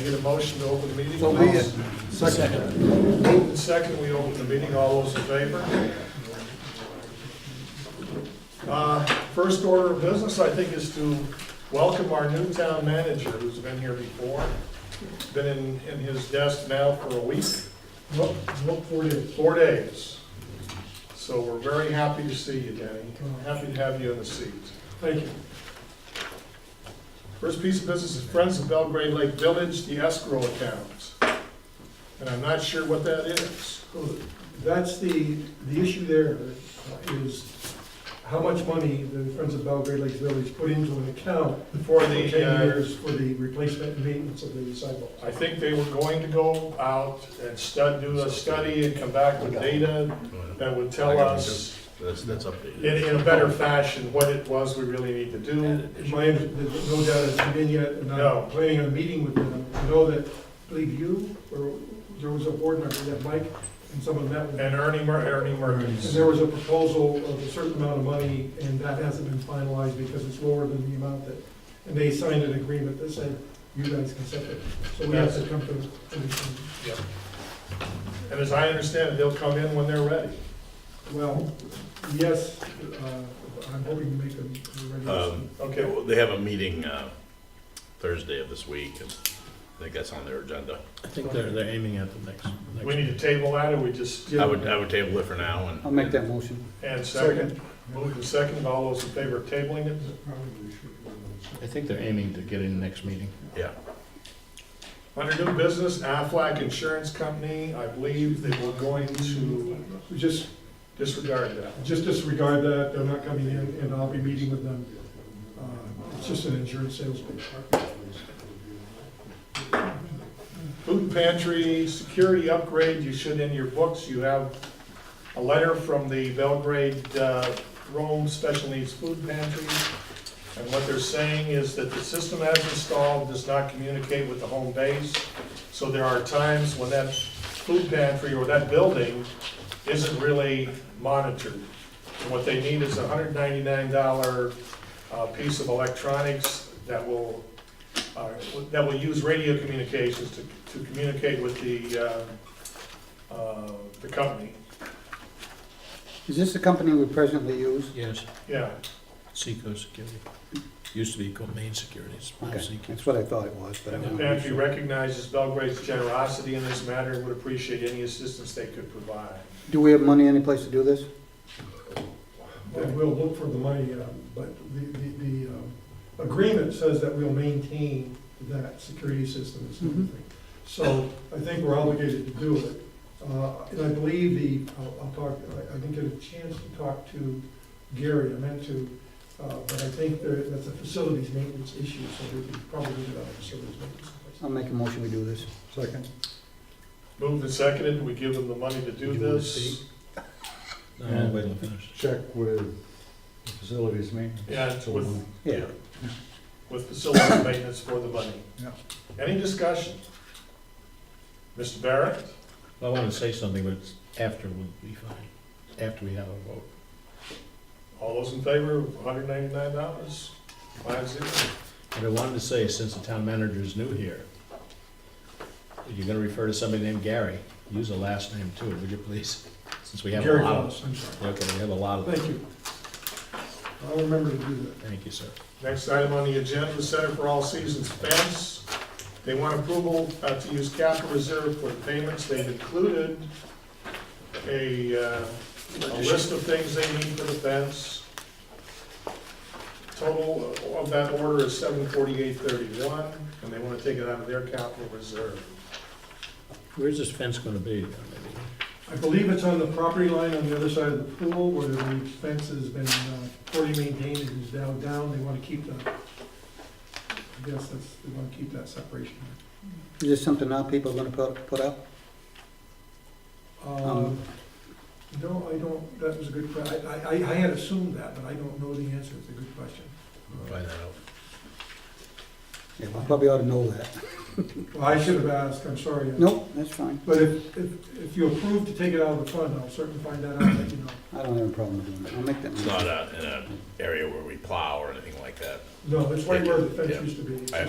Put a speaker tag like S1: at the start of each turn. S1: get a motion to open the meeting?
S2: So be it. Second.
S1: Moved and second, we open the meeting, all those in favor? Uh, First order of business, I think, is to welcome our new town manager, who's been here before, been in, in his desk now for a week,
S3: What, what for you?
S1: four days. So we're very happy to see you, Danny, happy to have you in the seat.
S3: Thank you.
S1: First piece of business is Friends of Belgrade Lake Village, the escrow account. And I'm not sure what that is.
S3: So That's the, the issue there is how much money the Friends of Belgrade Lakes Village put into an account
S1: For
S3: for ten
S1: the, uh,
S3: years for the replacement and maintenance of the sidewalk.
S1: I think they were going to go out and stud, do a study and come back with data that would tell us
S4: That's, that's updated.
S1: in, in a better fashion what it was we really need to do.
S3: My, under- there's no doubt it's been in yet, and
S1: No.
S3: I'm planning on meeting with them. I know that, I believe you, or there was a board member, that Mike, and someone met with them.
S1: And Ernie Mur, Ernie
S3: And
S1: Merkins.
S3: there was a proposal of a certain amount of money, and that hasn't been finalized because it's lower than the amount that, and they signed an agreement that said, you guys can set it. So we have to come to, to-
S1: And as I understand it, they'll come in when they're ready.
S3: well, yes, uh, I'm hoping to make a, a
S4: Um,
S3: resolution.
S1: Okay,
S4: Okay,
S1: well,
S4: well, they have a meeting uh, Thursday of this week, and I think that's on their agenda.
S5: I think they're, they're aiming at the next,
S1: we
S5: next.
S1: need to table that or we just,
S4: I would, I would table it for now, and
S6: I'll make that motion.
S1: and second, move to second, all those in favor of tabling it?
S5: I think they're aiming to get in next meeting.
S1: Under new business, Aflac Insurance Company, I believe that we're going to
S3: Just,
S1: disregard that.
S3: just disregard that, they're not coming in, and I'll be meeting with them. Uh, It's just an insurance sales pitch.
S1: Food pantry, security upgrade, you should in your books, you have a letter from the Belgrade uh, Rome Special Needs Food Pantry. And what they're saying is that the system as installed does not communicate with the home base. So there are times when that food pantry or that building isn't really monitored. And what they need is a hundred ninety-nine dollar uh, piece of electronics that will uh, that will use radio communications to, to communicate with the, uh, uh, the company.
S6: Is this the company we presently use?
S5: Yes,
S1: Yeah,
S5: Seco Security. Used to be called Main Security, it's now
S6: Okay,
S5: Seco.
S6: that's what I thought it was, but I
S1: the
S6: don't
S1: pantry
S6: know.
S1: recognizes Belgrade's generosity in this matter and would appreciate any assistance they could provide.
S6: Do we have money any place to do this?
S3: And we'll look for the money, uh, but the, the, the um, agreement says that we'll maintain that security system and
S6: Mhm.
S3: everything. So I think we're obligated to do it. Uh, And I believe the, I'll I'll talk, I- I didn't get a chance to talk to Gary, I meant to, uh, but I think there, that's a facilities maintenance issue, so we could probably do that facilities maintenance.
S6: I'll make a motion to do this. Second.
S1: Moved and seconded, we give them the money to do
S5: You wanna
S1: this.
S5: see? No, wait till I finish.
S2: Check with facilities maintenance.
S1: Yeah, it's with-
S6: Yeah.
S1: With facilities maintenance for the money.
S2: Yeah.
S1: Any discussion? Mr. Barrett?
S5: I wanna say something, but it's after would be fine, after we have a vote.
S1: All those in favor of hundred ninety-nine dollars? Five zero.
S5: But I wanted to say, since the town manager is new here, if you're gonna refer to somebody named Gary, use a last name too, would you please? Since we have a
S3: Gary
S5: lot of,
S3: Collins, I'm sorry.
S5: okay, we have a lot of,
S3: Thank you. I'll remember to do that.
S5: thank you, sir.
S1: Next item on the agenda, Center for All Seasons Fence. They want approval uh, to use capital reserve for the payments. They've included a, uh, a list of things they need for the fence. Total of that order is seven forty-eight thirty-one, and they want to take it out of their capital reserve.
S5: Where's this fence gonna be?
S3: I believe it's on the property line on the other side of the pool where the fence has been uh, poorly maintained and is now down. They want to keep that. I guess that's, they want to keep that separation.
S6: Is this something our people are gonna put, put up?
S3: Um, No, I don't, that was a good question. I, I, I had assumed that, but I don't know the answer. It's a good question.
S5: Find that out.
S6: Yeah, we probably ought to know that.
S3: Well, I should have asked, I'm sorry.
S6: Nope, that's fine.
S3: But if, if, if you approve to take it out of the fund, I'll certainly find that out, and let you know.
S6: I don't have a problem doing that. I'll make that
S4: it's not
S6: motion.
S4: uh, in an area where we plow or anything like that.
S3: No, it's right where the fence used to be.
S4: I